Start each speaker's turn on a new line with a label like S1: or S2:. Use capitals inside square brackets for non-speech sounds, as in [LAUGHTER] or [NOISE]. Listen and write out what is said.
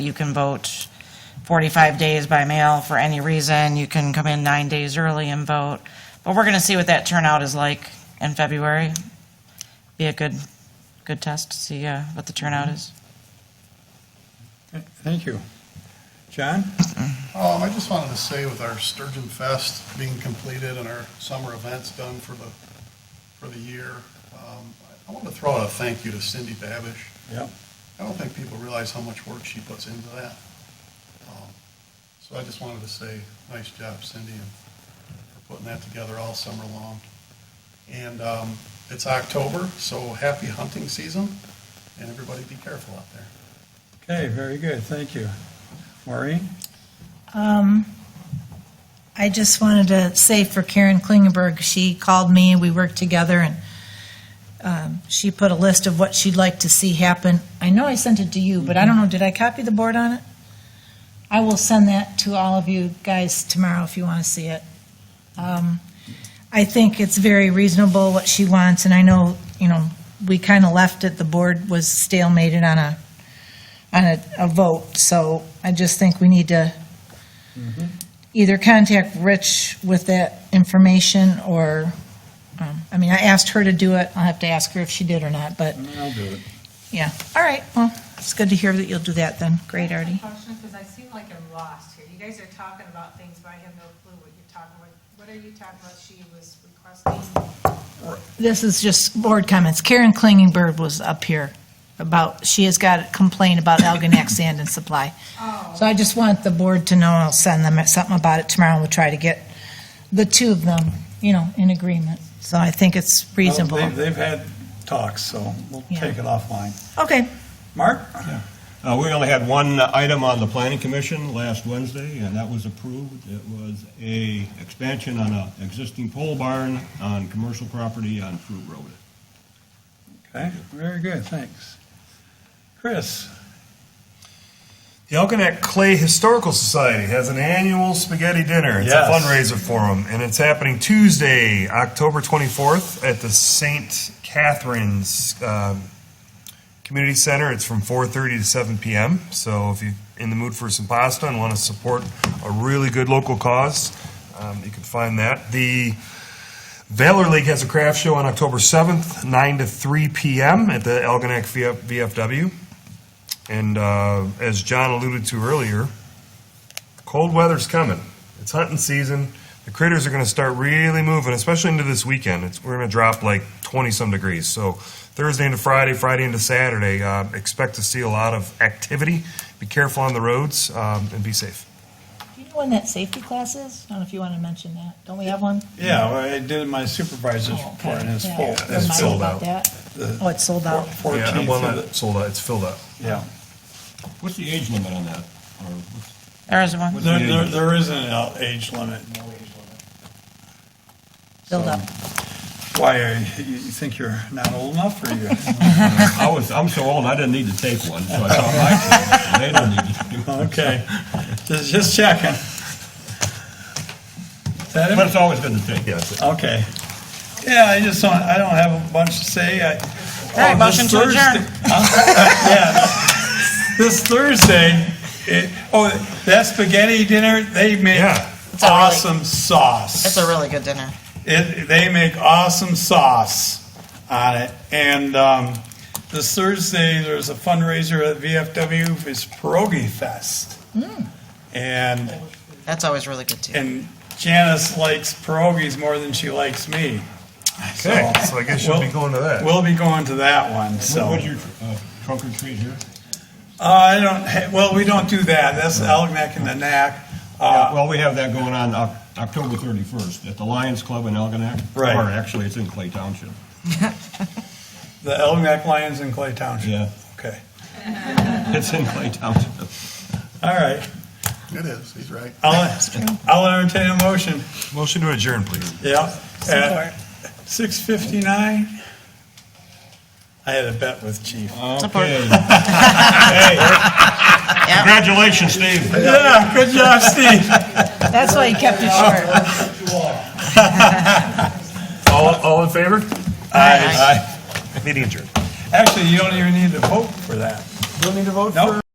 S1: you can vote 45 days by mail for any reason. You can come in nine days early and vote. But we're going to see what that turnout is like in February. Be a good, good test to see uh, what the turnout is.
S2: Thank you. John?
S3: Um, I just wanted to say with our Sturgeon Fest being completed and our summer events done for the, for the year, um, I want to throw out a thank you to Cindy Babish.
S2: Yep.
S3: I don't think people realize how much work she puts into that. Um, So I just wanted to say, nice job Cindy and for putting that together all summer long. And, um, it's October, so happy hunting season and everybody be careful out there.
S2: Okay, very good, thank you. Maureen?
S4: I just wanted to say for Karen Klingenberg, she called me, we worked together, and um, she put a list of what she'd like to see happen. I know I sent it to you, but I don't know, did I copy the board on it? I will send that to all of you guys tomorrow if you want to see it. Um, I think it's very reasonable what she wants, and I know, you know, we kind of left it, the board was stalemated on a, on a, a vote, so I just think we need to either contact Rich with that information or, um, I mean, I asked her to do it. I'll have to ask her if she did or not, but
S2: I'll do it.
S4: yeah. All right, well, it's good to hear that you'll do that then. Great,
S5: I have a
S4: Artie.
S5: Question, because I seem like I'm lost here. You guys are talking about things, but I have no clue what you're talking about. What are you talking about she was requesting?
S4: This is just board comments. Karen Klingenberg was up here about, she has got a complaint about Elginak Sand and Supply. So I just want the board to know, I'll send them something about it tomorrow, and we'll try to get the two of them, you know, in agreement. So I think it's reasonable.
S2: Well, they- They've had talks, so we'll
S4: Yeah.
S2: take it offline.
S4: Okay,
S2: Mark?
S6: Uh, We only had one item on the planning commission last Wednesday, and that was approved. It was a expansion on an existing pole barn on commercial property on Fruit Road.
S2: Okay, very good, thanks. Chris?
S7: The Elginak Clay Historical Society has an annual spaghetti dinner. It's
S2: Yes.
S7: a fundraiser for them, and it's happening Tuesday, October 24th at the St. Catherine's um, Community Center. It's from 4:30 to 7 p.m. So if you're in the mood for some pasta and want to support a really good local cause, um, you can find that. The Valor League has a craft show on October 7th, 9 to 3 p.m. at the Elginak VFW. And uh, as John alluded to earlier, cold weather's coming. It's hunting season. The critters are going to start really moving, especially into this weekend. It's, we're going to drop like 20 some degrees. So Thursday into Friday, Friday into Saturday, uh, expect to see a lot of activity. Be careful on the roads um, and be safe.
S4: Do you know when that safety class is? I don't know if you want to mention that. Don't we have one? Oh,
S2: Yeah, well, I did my supervisor's report, and it's
S4: Yeah.
S2: full.
S7: Yeah,
S4: Remind
S7: it's
S4: me
S7: sold
S4: about
S7: out.
S4: that. Oh, it's sold out.
S7: Yeah,
S2: Fourteenth,
S7: well, not sold out. It's filled up.
S2: yeah.
S6: What's the age limit on that? Or what's-
S1: There is one.
S2: There, there- there isn't an age limit.
S4: Build up.
S2: Why, are you you think you're not old enough, or you? [LAUGHS]
S6: I was, I'm so old, I didn't need to take one, so I thought my kids, they don't need to. do one.
S2: Okay, just, just checking. Is that it?
S6: But it's always good to take.
S7: Yeah, it's-
S2: Okay. Yeah, I just don't, I don't have a bunch to say. I-
S1: right,
S2: Oh,
S1: motion
S2: this
S1: to adjourn.
S2: Thursday- [LAUGHS] Yeah. This Thursday, it- oh, that spaghetti dinner, they make
S7: Yeah.
S1: a really-
S2: awesome sauce.
S1: It's a really good dinner.
S2: It, they make awesome sauce on it. And um, this Thursday, there's a fundraiser at VFW. for It's Pierogi Fest.
S1: Mm.
S2: And
S1: That's always really good too.
S2: and Janice likes pierogies more than she likes me.
S7: Okay, so I guess you'll be
S2: we'll-
S7: going to that.
S2: We'll be going to that one. So
S6: What's your uh, trunk or treat here?
S2: uh, I don't. ha- Well, we don't do that. That's Elginak and the Knack. Uh,
S6: Well, we have that going on Oc- October 31st at the Lions Club in Algonac.
S2: Right.
S6: Or actually, it's in Clay Township.
S2: the Elginak Lions in Clay Township.
S6: Yeah,
S2: Okay.
S6: [LAUGHS] it's in Clay Township.
S2: All right.
S3: It is, he's right.
S2: I'll, I'll entertain a motion.
S7: Motion to adjourn, please.
S2: Yeah. At six fifty-nine. I had a bet with Chief.
S1: Support.
S6: [LAUGHS] Okay. Hey. Congratulations, Steve.
S2: Yeah, good job, Steve.
S4: That's why he kept it short.
S7: All, all in favor?
S2: Aye.
S7: Meeting adjourned.
S2: Actually, you don't even need to vote for that.
S7: Don't need to vote
S2: Nope.